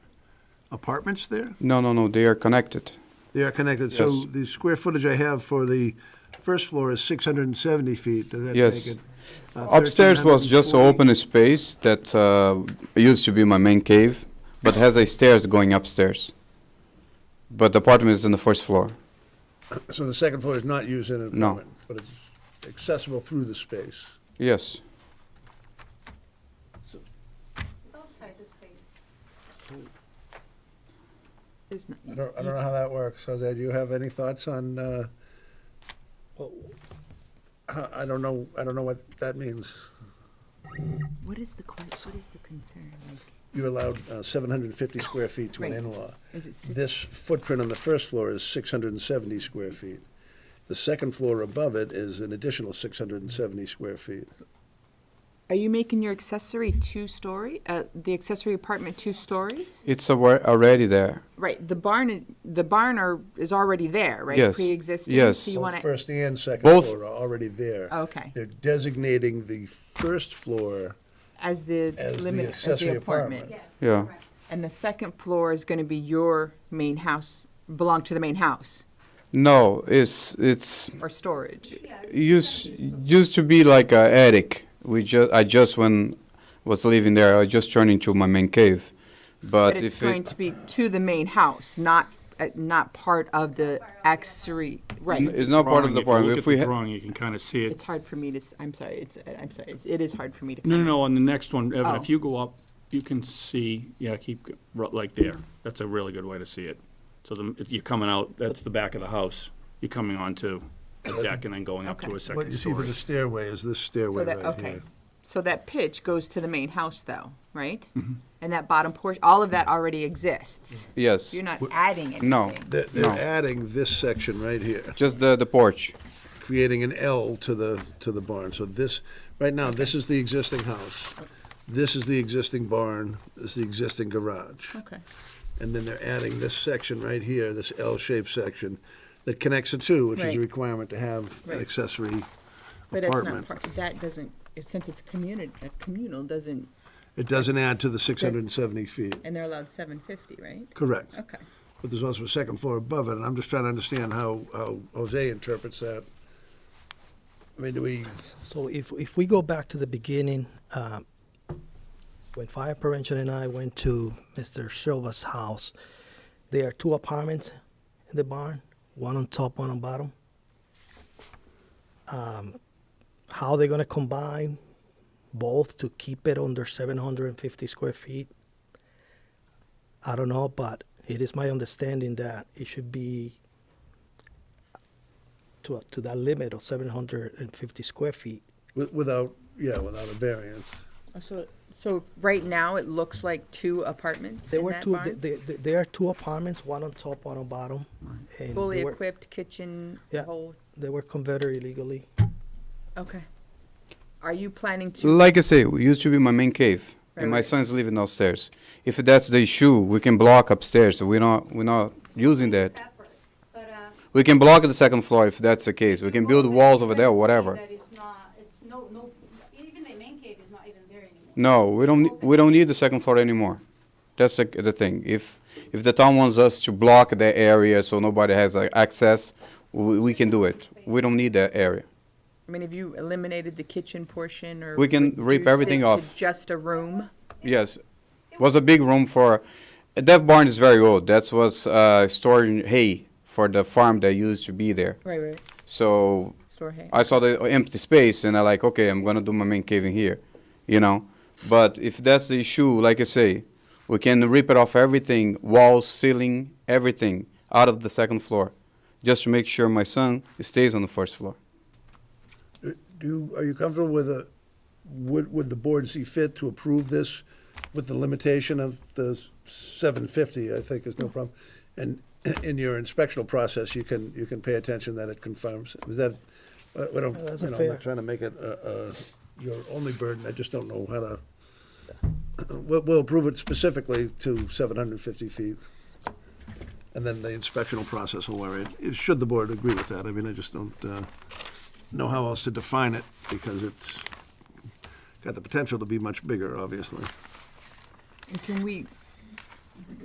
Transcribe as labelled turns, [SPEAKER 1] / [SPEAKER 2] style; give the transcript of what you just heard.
[SPEAKER 1] apartments there?
[SPEAKER 2] No, no, no, they are connected.
[SPEAKER 1] They are connected, so
[SPEAKER 2] Yes.
[SPEAKER 1] the square footage I have for the first floor is 670 feet. Does that
[SPEAKER 2] Yes.
[SPEAKER 1] make it? uh,
[SPEAKER 2] Upstairs was just
[SPEAKER 1] 1340?
[SPEAKER 2] open space that uh, used to be my main cave, but has a stairs going upstairs. But the apartment is on the first floor.
[SPEAKER 1] So the second floor is not used in an
[SPEAKER 2] No.
[SPEAKER 1] apartment? But it's accessible through the space.
[SPEAKER 2] Yes.
[SPEAKER 3] It's outside the space.
[SPEAKER 4] There's no-
[SPEAKER 1] I don't, I don't know how that works. So that you have any thoughts on, uh, well, I- I don't know, I don't know what that means.
[SPEAKER 4] What is the, que- what is the concern? Like,
[SPEAKER 1] You're allowed uh, 750 square feet to an
[SPEAKER 4] Right.
[SPEAKER 1] in-law.
[SPEAKER 4] Is it six?
[SPEAKER 1] This footprint on the first floor is 670 square feet. The second floor above it is an additional 670 square feet.
[SPEAKER 4] Are you making your accessory two-story, uh, the accessory apartment two stories?
[SPEAKER 2] It's awa- already there.
[SPEAKER 4] Right, the barn is, the barn are, is already there, right?
[SPEAKER 2] Yes,
[SPEAKER 4] Pre-existing?
[SPEAKER 2] yes.
[SPEAKER 4] So you
[SPEAKER 1] Both
[SPEAKER 4] want to,
[SPEAKER 1] First and second
[SPEAKER 2] Both-
[SPEAKER 1] floor are already there.
[SPEAKER 4] Okay.
[SPEAKER 1] They're designating the first floor
[SPEAKER 4] as the
[SPEAKER 1] as the
[SPEAKER 4] limit, as
[SPEAKER 1] accessory
[SPEAKER 4] the
[SPEAKER 1] apartment.
[SPEAKER 4] apartment?
[SPEAKER 2] Yeah.
[SPEAKER 3] correct.
[SPEAKER 4] And the second floor is going to be your main house, belong to the main house,
[SPEAKER 2] No, it's it's
[SPEAKER 4] or storage?
[SPEAKER 3] Yeah,
[SPEAKER 2] used used to be like a attic. We just I just when was living there, I just turned into my main cave. But,
[SPEAKER 4] But it's
[SPEAKER 2] if
[SPEAKER 4] going
[SPEAKER 2] it,
[SPEAKER 4] to be to the main house, not, uh, not part of the accessory, right?
[SPEAKER 2] it's not part of
[SPEAKER 5] drawing,
[SPEAKER 2] the
[SPEAKER 5] if you
[SPEAKER 2] apartment.
[SPEAKER 5] look
[SPEAKER 2] If
[SPEAKER 5] at
[SPEAKER 2] we
[SPEAKER 5] the
[SPEAKER 2] ha-
[SPEAKER 5] drawing, you can kind of see
[SPEAKER 4] It's
[SPEAKER 5] it.
[SPEAKER 4] hard for me to, s- I'm sorry, it's, I'm sorry, it's- it is hard for me to.
[SPEAKER 5] No, no,
[SPEAKER 4] comment.
[SPEAKER 5] no, on the next one, Evan,
[SPEAKER 4] Oh.
[SPEAKER 5] if you go up, you can see, yeah, keep, go- ru- like there. That's a really good way to see it. So the, if you're coming out, that's the back of the house. You're coming onto the deck and then going up to
[SPEAKER 4] Okay.
[SPEAKER 5] a
[SPEAKER 1] What
[SPEAKER 5] second
[SPEAKER 1] you see for
[SPEAKER 5] story.
[SPEAKER 1] the stairway is this
[SPEAKER 4] So
[SPEAKER 1] stairway
[SPEAKER 4] that,
[SPEAKER 1] right
[SPEAKER 4] okay,
[SPEAKER 1] here.
[SPEAKER 4] so that pitch goes to the main house though, right?
[SPEAKER 5] Mm-hmm.
[SPEAKER 4] And that bottom portion, all of that already exists.
[SPEAKER 2] yes,
[SPEAKER 4] You're not adding anything.
[SPEAKER 2] No.
[SPEAKER 1] They're, they're
[SPEAKER 2] No.
[SPEAKER 1] adding this section right here,
[SPEAKER 2] just the the porch.
[SPEAKER 1] creating an L to the, to the barn. So this, right now, this is the existing house. This is the existing barn, this is the existing garage.
[SPEAKER 4] Okay,
[SPEAKER 1] And then they're adding this section right here, this L-shaped section that connects the two, which is
[SPEAKER 4] Right.
[SPEAKER 1] a requirement to have an
[SPEAKER 4] Right.
[SPEAKER 1] accessory
[SPEAKER 4] but that's not
[SPEAKER 1] apartment.
[SPEAKER 4] part, that doesn't, since it's communal, communal doesn't,
[SPEAKER 1] It doesn't add to the 670 feet.
[SPEAKER 4] and they're allowed seven fifty, right?
[SPEAKER 1] Correct.
[SPEAKER 4] Okay.
[SPEAKER 1] But there's also a second floor above it, and I'm just trying to understand how, how Jose interprets that. I mean, do we,
[SPEAKER 6] So if, if we go back to the beginning, um, when fire prevention and I went to Mr. Silva's house, there are two apartments in the barn, one on top, one on bottom. Um, how they're gonna combine both to keep it under seven hundred and fifty square feet? I don't know, but it is my understanding that it should be to, to that limit of seven hundred and fifty square feet.
[SPEAKER 1] wi- without, yeah, without a variance?
[SPEAKER 4] So, so right now it looks like two apartments
[SPEAKER 6] There
[SPEAKER 4] in
[SPEAKER 6] were
[SPEAKER 4] that
[SPEAKER 6] two.
[SPEAKER 4] barn?
[SPEAKER 6] There, there are two apartments, one on top, one on bottom, and
[SPEAKER 4] Fully
[SPEAKER 6] they were,
[SPEAKER 4] equipped kitchen,
[SPEAKER 6] Yeah.
[SPEAKER 4] whole,
[SPEAKER 6] they were converted illegally.
[SPEAKER 4] okay. Are you planning to?
[SPEAKER 2] Like I say, it used to be my main cave,
[SPEAKER 4] Right,
[SPEAKER 2] and my
[SPEAKER 4] right.
[SPEAKER 2] son's living downstairs. If that's the issue, we can block upstairs. So we're not we're not using that.
[SPEAKER 3] Separate, but, uh,
[SPEAKER 2] We can block the second floor if that's the case. We can build
[SPEAKER 3] people
[SPEAKER 2] walls
[SPEAKER 3] that-
[SPEAKER 2] over
[SPEAKER 3] that
[SPEAKER 2] there,
[SPEAKER 3] say
[SPEAKER 2] whatever.
[SPEAKER 3] that it's not- it's no- no- even the main cave is not even there anymore.
[SPEAKER 2] No, we don't ne- we don't need the second floor anymore. That's the, the thing. If if the town wants us to block that area so nobody has like, access, we, we can do it. We don't need that area.
[SPEAKER 4] I mean, have you eliminated the kitchen portion or?
[SPEAKER 2] We can
[SPEAKER 4] reduced
[SPEAKER 2] rip everything
[SPEAKER 4] it to
[SPEAKER 2] off.
[SPEAKER 4] Just a room?
[SPEAKER 2] Yes, was a big room for. That barn is very old. That's what's uh, storing hay for the farm that used to be there.
[SPEAKER 4] Right, right,
[SPEAKER 2] So
[SPEAKER 4] store hay.
[SPEAKER 2] I saw the empty space and I like, okay, I'm gonna do my main cave in here, you know. But if that's the issue, like I say, we can rip it off everything, walls, ceiling, everything out of the second floor, just to make sure my son stays on the first floor.
[SPEAKER 1] Do, you- are you comfortable with a, would, would the board see fit to approve this with the limitation of the seven fifty, I think is no problem? And in your inspectional process, you can, you can pay attention that it confirms, is that, uh, we don't,
[SPEAKER 6] That's
[SPEAKER 1] you know, I'm
[SPEAKER 6] fair.
[SPEAKER 1] not trying to make it, uh, uh, your only burden, I just don't know how to, we'll, we'll approve it specifically to seven hundred and fifty feet. And then the inspectional process will worry, it, should the board agree with that, I mean, I just don't, uh, know how else to define it because it's got the potential to be much bigger, obviously.
[SPEAKER 4] And Can we,